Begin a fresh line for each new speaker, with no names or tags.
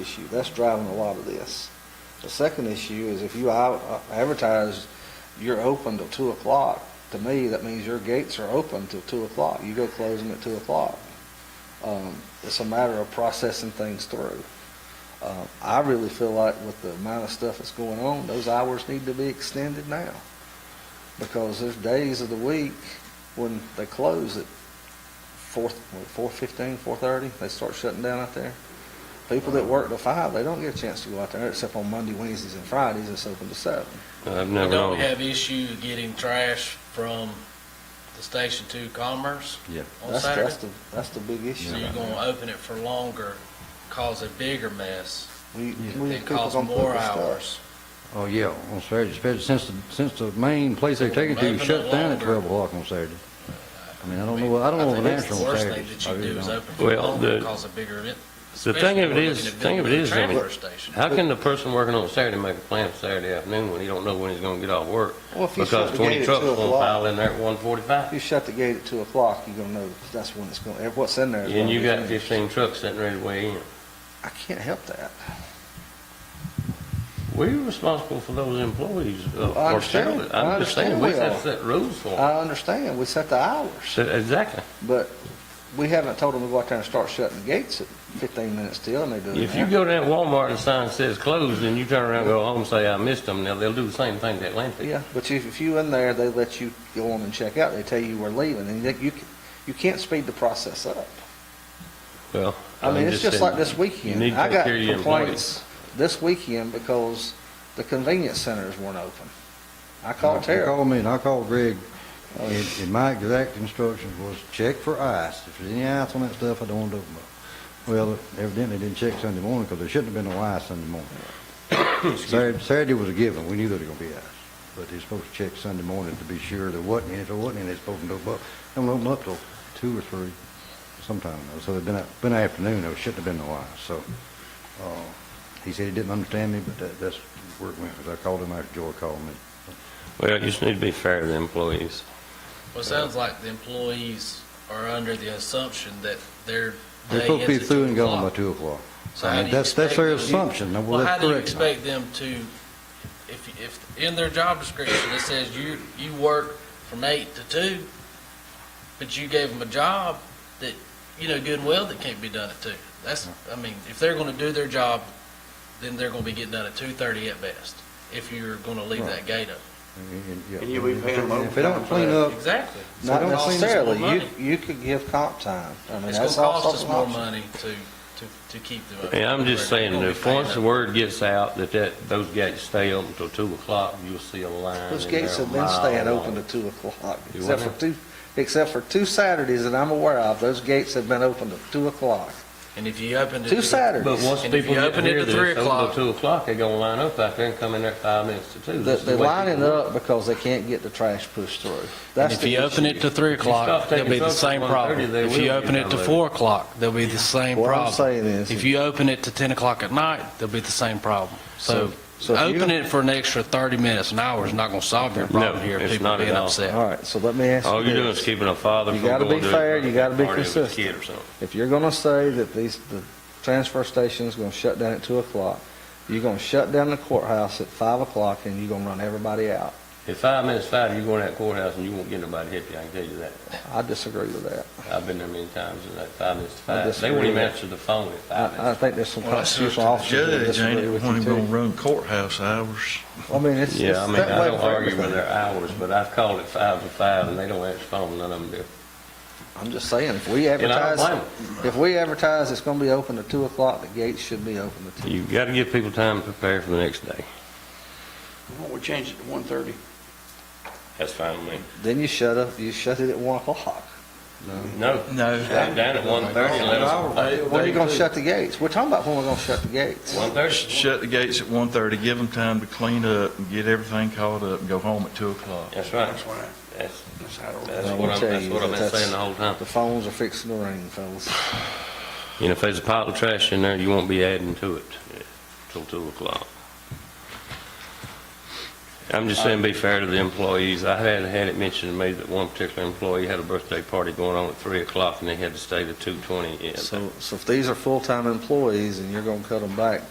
issue. That's driving a lot of this. The second issue is if you out- uh, advertise you're open till two o'clock, to me, that means your gates are open till two o'clock. You go close them at two o'clock. Um, It's a matter of processing things through. Uh, I really feel like with the amount of stuff that's going on, those hours need to be extended now. Because there's days of the week when they close at four, four fifteen, four thirty, they start shutting down out there. People that work till five, they don't get a chance to go out there except on Monday, Wednesdays, and Fridays. It's open to seven.
I've
But
never
Don't we
known.
have issue getting trash from the station to Commerce
Yeah.
on
That's, that's
Saturday?
the, that's the big
So
issue.
you're gonna open it for longer, cause a bigger mess,
We, we,
and
people
cause
gonna put
more
the stuff.
hours.
Oh, yeah, on Saturday, especially since, the- since the main place they take it to
Open it
shut down at
longer.
12 o'clock on Saturday. I mean, I don't know, I don't know
think
of an
that's
answer on
the worst
Saturday.
thing that you do is open for
Well,
longer,
the-
cause a bigger event.
The thing of it is, thing of it is, I mean,
Transfer station.
how can the person working on Saturday make a plan for Saturday afternoon when he don't know when he's gonna get off work?
Well, if you shut
Because
the
twenty
gate at
trucks
two
gonna pile
o'clock,
in there at one
if
forty-five,
you shut the gate at two o'clock, you're gonna know that's when it's gonna, what's in there. is
and
gonna
you
be
got
finished.
fifteen trucks sitting ready to weigh in.
I can't help that.
We're responsible for those employees. uh,
I
for
understand.
Saturday.
I
I'm just saying,
understand
we
we
have
are.
to set rules for them.
I understand, we set the hours,
So, Exactly.
but we haven't told them to go out there and start shutting the gates at fifteen minutes till, and they do
If you
it now.
go down to Walmart and the sign says closed, and you turn around and go home and say, I missed them, now they'll do the same thing to Atlanta.
Yeah, but if, if you in there, they let you go on and check out, they tell you we're leaving, and you, you c- you can't speed the process up.
Well.
I mean,
I'm
it's just
saying,
like this weekend.
need to
I
take
got
care of your
complaints this weekend because the convenience centers weren't open. I called Oh.
He
Terry.
called me, and I called Greg, and, and my exact instructions was check for ice. If there's any ice on that stuff, I don't want to open up. Well, evidently they didn't check Sunday morning, because there shouldn't have been no ice Sunday morning. Saturday, Saturday was a given, we knew there was gonna be ice, but they're supposed to check Sunday morning to be sure there wasn't any. If there wasn't any, they're supposed to open up, they don't open up till two or three sometime, though. so there'd been, a- been an afternoon, there shouldn't have been no ice, so. uh, He said he didn't understand me, but that, that's where it went, because I called him after Joy called me.
Well, you just need to be fair to the employees.
Well, it sounds like the employees are under the assumption that their
They're
day
supposed to be
ends at
through
two
and gone by
o'clock.
two o'clock.
So
I
how
mean,
do you
that's- that's their
expect them-
assumption. Now, well,
Well,
that's
how do you
correct.
expect them to, if, if, in their job description, it says you, you work from eight to two, but you gave them a job that, you know, good and well that can't be done at two. That's, I mean, if they're gonna do their job, then they're gonna be getting done at two thirty at best, if you're gonna leave that gate up.
And
And you'll be paying them
If
overtime
they don't
for
clean
that.
up,
Exactly.
Not
don't clean-
necessarily. You,
Money.
you could give comp time. I mean,
It's gonna
that's also
cost us
an
more
option.
money to, to, to keep them up.
Yeah, I'm just saying,
We're gonna be
if
paying
once the
them.
word gets out that that, those gates stay open till two o'clock, you'll see a line.
Those
in there
gates
a
have been
mile
staying
long.
open to two o'clock,
You
except
wanna-
for two, except for two Saturdays that I'm aware of, those gates have been open to two o'clock,
And if you open it.
two Saturdays.
But once
And if
people
you
get to
open it
hear
to
this,
three
open till
o'clock-
two o'clock, they're gonna line up out there and come in there at five minutes to two.
They-
This is
They're
the way
lining
people-
up because they can't get the trash pushed through.
And
That's
if
the
you open
issue.
it to 3 o'clock,
stop taking
there'll be the
trucks at
same
1:30,
problem.
they
If
will
you
get
open it to
downloaded.
4 o'clock, there'll be the same
What I'm
problem.
saying is-
If you open it to 10 o'clock at night, there'll be the same problem. So
So- so if you-
open it for an extra 30 minutes, an hour is not going to solve your
No,
problem here,
it's
people
not at
being
all.
upset.
All right, so let me ask you
All you're doing is
this.
keeping a father
You
from
gotta
going to.
be fair, you gotta be
party with his
consistent.
kid or something.
If you're gonna say that these, the transfer station's gonna shut down at two o'clock, you're gonna shut down the courthouse at five o'clock and you're gonna run everybody out.
If five minutes five, you go in that courthouse and you won't get nobody to help you, I can tell you that.
I disagree with that.
I've been there many times, it's like five minutes to
I
five. They
disagree
won't even
with-
answer the phone at
I,
five
I
minutes.
think there's some
Well, that's up to
constitutional
the
officers that
judge, ain't
disagree
it,
with
when
you
he
too.
gonna run courthouse hours?
I mean, it's, it's
Yeah, I
that
mean, I
way
don't
for
argue with
everything.
their hours, but I've called it five to five and they don't answer the phone, none of them
I'm just saying, if we
do. And I don't blame
advertise,
'em.
if we advertise it's gonna be open to two o'clock, the gates should be open to two.
You've got to give people time to prepare for the next day.
Why don't we change it to one thirty?
That's fine with me.
Then you shut up, you shut it at one o'clock.
No.
No.
Shut it down at one thirty and let us.
When are you gonna shut the gates? We're talking about when we're gonna shut the gates.
One thirty,
Shut the gates at one thirty, give them time to clean up and get everything caught up and go home at two o'clock.
that's right.
That's why,
That's,
that's how it'll.
that's
Well,
what
I'll
I'm,
tell
that's
you
what I've
that
been
that's-
saying the whole time.
The phones are fixing to ring, fellas.
You know, if there's a pile of trash in there, you won't be adding to it eh, till two o'clock. I'm just saying, be fair to the employees. I had, had it mentioned to me that one particular employee had a birthday party going on at 3 o'clock, and they had to stay to 2:20.
So, so if these are full-time employees and you're gonna cut them back